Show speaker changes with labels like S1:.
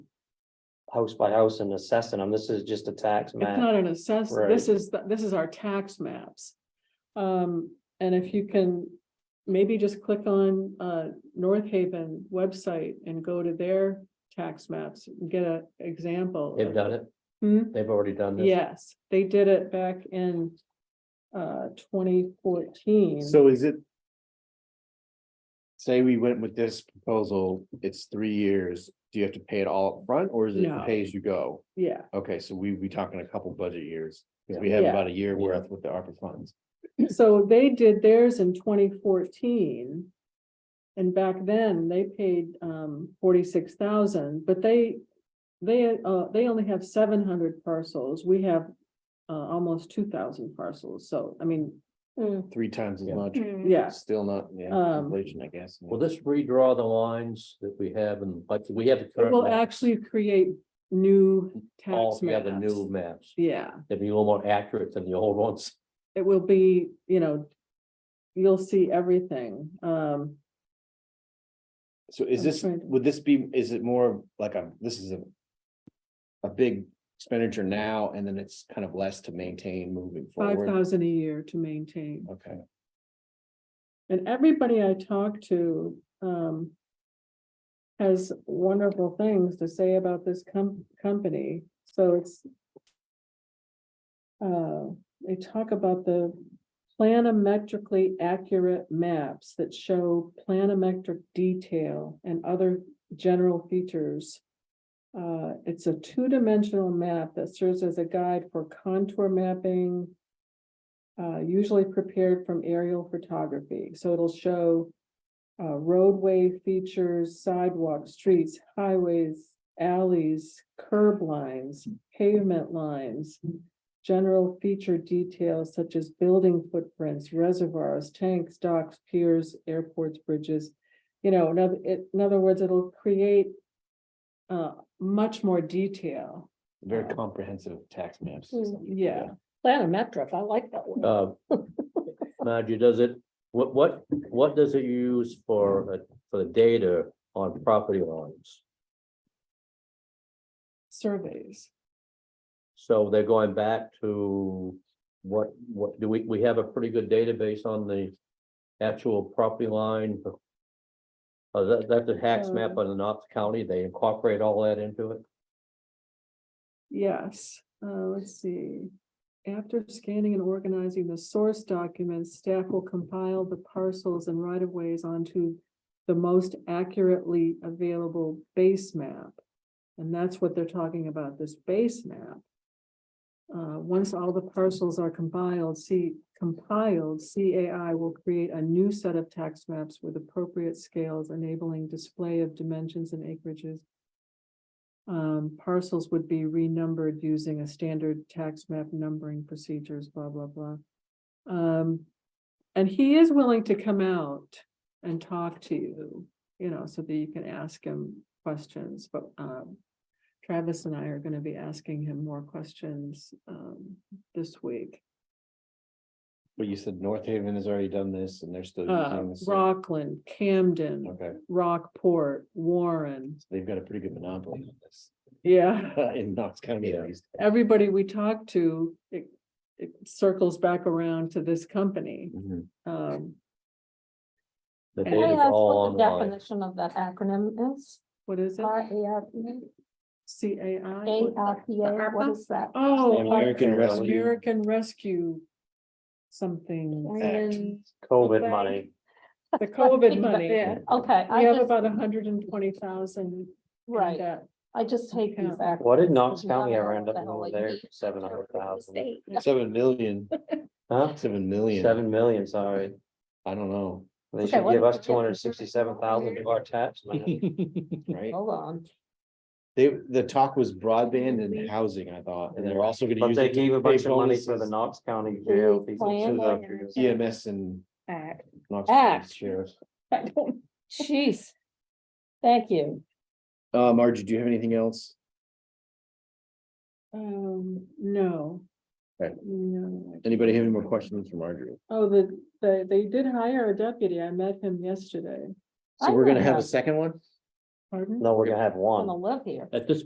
S1: house by house and assessing them. This is just a tax
S2: It's
S1: map.
S2: not an assess, this is, the- this is our tax maps. Um, and if you can maybe just click on, uh, North Haven website and go to their tax maps, and get an example.
S1: They've
S2: of-
S1: done it.
S2: Hmm?
S1: They've already done this.
S2: Yes, they did it back in, uh, twenty fourteen.
S3: So is it? Say we went with this proposal, it's three years, do you have to pay it all upfront or is it
S2: No.
S3: pay as you go?
S2: Yeah,
S3: Okay, so we be talking a couple budget years, 'cause we
S1: Yeah.
S3: have
S2: Yeah.
S3: about a year worth with the ARPA funds.
S2: so they did theirs in twenty fourteen. And back then, they paid um forty-six thousand, but they, they uh, they only have seven hundred parcels, we have. Uh, almost two thousand parcels, so I mean,
S3: Three times as
S1: Yeah.
S3: much,
S2: yeah,
S3: still not, yeah,
S2: Mm. Um,
S3: inflation, I guess.
S4: Will this redraw the lines that we have and like we have the
S2: it
S4: current?
S2: will
S4: maps,
S2: actually create new tax
S4: Altogether
S2: maps.
S4: new maps.
S2: Yeah.
S4: They'd be a little more accurate than the old ones.
S2: it will be, you know, you'll see everything. Um,
S3: So is
S2: I'm
S3: this,
S2: trying to-
S3: would this be, is it more of like a, this is a. A big expenditure now and then it's kind of less to maintain moving
S2: five
S3: forward?
S2: thousand a year to maintain.
S3: Okay,
S2: And everybody I talk to, um, has wonderful things to say about this com- company. So it's, uh, they talk about the planimetrically accurate maps that show planimetric detail and other general features. Uh, it's a two-dimensional map that serves as a guide for contour mapping, uh, usually prepared from aerial photography. So it'll show uh, roadway features, sidewalks, streets, highways, alleys, curb lines,
S5: Hmm.
S2: pavement lines, general feature details such as building footprints, reservoirs, tanks, docks, piers, airports, bridges. You know, in other, it- in other words, it'll create uh, much more detail.
S3: very comprehensive tax maps.
S2: Mm,
S5: Hmm.
S2: Yeah.
S5: Planometric, I like that one.
S4: Uh, Margie, does it, what, what, what does it use for, uh, for the data on property lines?
S2: surveys.
S4: So they're going back to what, what, do we, we have a pretty good database on the actual property line? Uh, that, that's a tax
S5: Hmm.
S4: map on the Knox County. They incorporate all that into it.
S2: Yes, uh, let's see. After scanning and organizing the source documents, staff will compile the parcels and right of ways onto the most accurately available base map. And that's what they're talking about, this base map. Uh, once all the parcels are compiled, see compiled, CAI will create a new set of tax maps with appropriate scales enabling display of dimensions and acreages um, parcels would be renumbered using a standard tax map numbering procedures, blah, blah, blah. Um, and he is willing to come out and talk to you, you know, so that you can ask him questions, but, um, Travis and I are gonna be asking him more questions, um, this week.
S3: But you said North Haven has already done this and they're still.
S2: Uh,
S3: using this, so-
S2: Rockland, Camden,
S3: Okay,
S2: Rockport, Warren,
S3: so they've got a pretty good monopoly on this
S2: yeah.
S3: in Knox County at
S4: Yeah.
S3: least.
S2: everybody we talk to, it, it circles back around to this company.
S1: Mm-hmm.
S2: Um,
S4: The
S2: Can I
S5: Can I
S4: data's
S5: ask
S4: all
S5: what the
S4: online.
S5: definition of that acronym is?
S2: what is it?
S5: R A R
S2: C A
S5: A
S2: I?
S5: R P A, what is that?
S2: Oh.
S3: American Rescue.
S2: American Rescue something,
S5: Plan-
S1: COVID money.
S2: the COVID money.
S5: Yeah, Okay,
S2: We
S5: I
S2: have
S5: just,
S2: about hundred and twenty thousand.
S5: right, I just hate these.
S2: Yeah.
S1: What did Knox
S5: acronyms, 'cause you never
S1: County ever
S5: know
S1: end
S5: what
S1: up
S5: the hell
S1: with
S5: they
S1: their
S5: mean.
S1: seven hundred thousand?
S5: State.
S3: Seven million,
S1: Huh?
S3: seven million.
S1: Seven million, sorry.
S3: I don't know,
S1: They
S5: Okay,
S1: should
S5: what
S1: give
S5: if
S1: us
S5: we get-
S1: two hundred sixty-seven thousand of our tax money.
S3: right?
S5: Hold on.
S3: They, the talk was broadband and housing, I thought, and they're also gonna
S1: But
S3: use.
S1: they
S3: it to
S1: gave a
S3: pay
S1: bunch of money for the
S3: bonuses,
S1: Knox County jail. these are two
S5: plan on
S1: doctors.
S5: it?
S3: EMS and
S5: Act.
S3: Knox County
S5: Act.
S3: sheriff.
S5: I don't, jeez. Thank you.
S3: Uh, Margie, do you have anything else?
S2: Um, no.
S3: Okay.
S2: No. I-
S3: Anybody have any more questions for Marjorie?
S2: Oh, the, the, they did hire a deputy. I met him yesterday.
S3: So
S5: I
S3: we're gonna
S5: don't
S3: have
S5: know.
S3: a second one?
S2: Pardon?
S1: No, we're gonna have
S5: I'm
S1: one.
S5: gonna live here.
S4: At this